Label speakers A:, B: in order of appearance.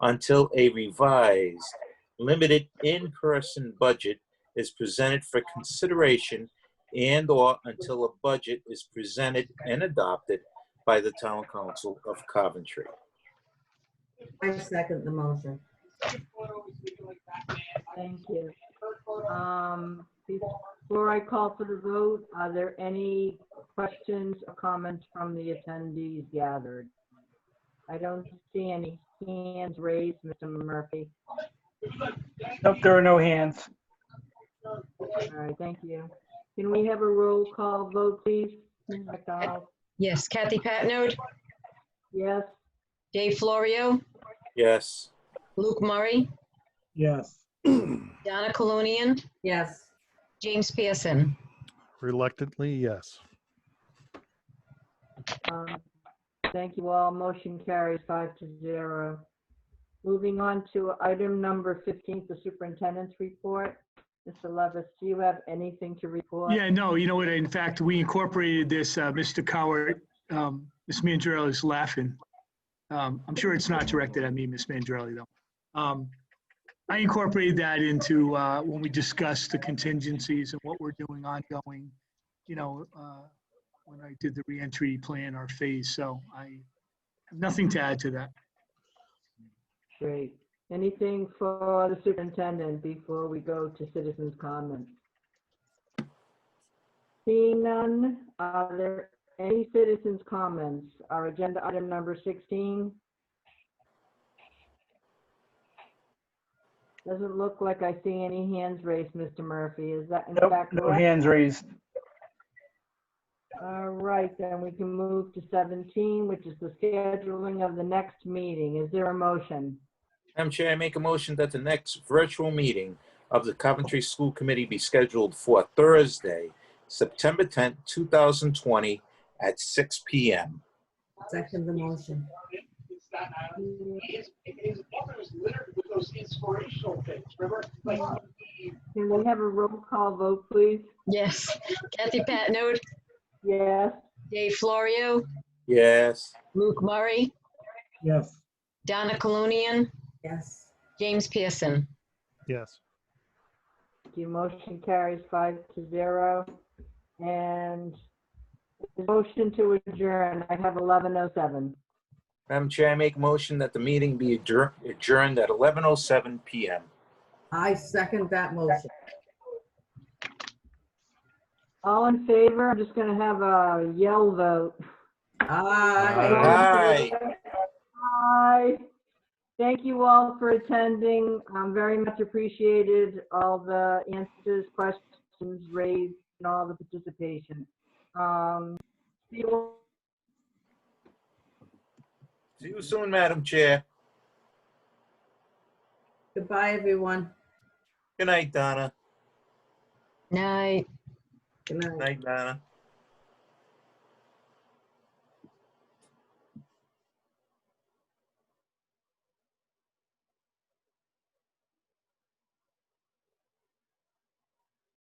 A: until a revised, limited in-person budget is presented for consideration and/or until a budget is presented and adopted by the Town Council of Coventry.
B: I second the motion.
C: Thank you. Um, Before I call for the vote, are there any questions or comments from the attendees gathered? I don't see any hands raised, Mr. Murphy.
D: Nope, there are no hands.
C: All right, thank you. Can we have a roll call vote, please? Ms. McDonald?
E: Yes, Kathy Patnode,
C: Yes,
E: Dave Florio,
A: Yes,
E: Luke Murray,
D: Yes.
E: Donna Colunian,
B: Yes,
E: James Pearson.
F: Reluctantly, yes.
C: Um, Thank you all. Motion carries five to zero. Moving on to item number 15, the superintendent's report. Mr. Levis, do you have anything to report?
G: Yeah, no, you know what, in fact, we incorporated this, uh, Mr. Coward, um, Ms. Mandrelli is laughing. Um, I'm sure it's not directed at me, Ms. Mandrelli, though. Um, I incorporated that into, uh, when we discussed the contingencies and what we're doing ongoing, you know, uh, when I did the reentry plan, our phase, so I have nothing to add to that.
C: Great. Anything for the superintendent before we go to citizens' comments? Seeing none, are there any citizens' comments? Our agenda item number 16. Doesn't look like I see any hands raised, Mr. Murphy. Is that in
D: Nope,
C: fact
D: no
C: correct?
D: hands raised.
C: All right, then we can move to 17, which is the scheduling of the next meeting. Is there a motion?
A: Madam Chair, I make a motion that the next virtual meeting of the Coventry School Committee be scheduled for Thursday, September 10th, 2020, at 6 PM.
B: second the motion.
C: Can we have a roll call vote, please?
E: Yes, Kathy Patnode,
C: Yes,
E: Dave Florio,
A: Yes,
E: Luke Murray,
D: Yes.
E: Donna Colunian,
B: Yes,
E: James Pearson.
F: Yes.
C: the motion carries five to zero. And the motion to adjourn, I have 11:07.
A: Madam Chair, I make a motion that the meeting be adjour- adjourned at 11:07 PM.
B: I second that motion.
C: All in favor, I'm just going to have a yell vote.
B: Aye.
A: Aye.
C: Aye. Thank you all for attending. Um, Very much appreciated, all the answers, questions raised, and all the participation. Um, See you all.
A: See you soon, Madam Chair.
B: Goodbye, everyone.
A: Good night, Donna.
E: Night.
B: Good night.
A: Night, Donna.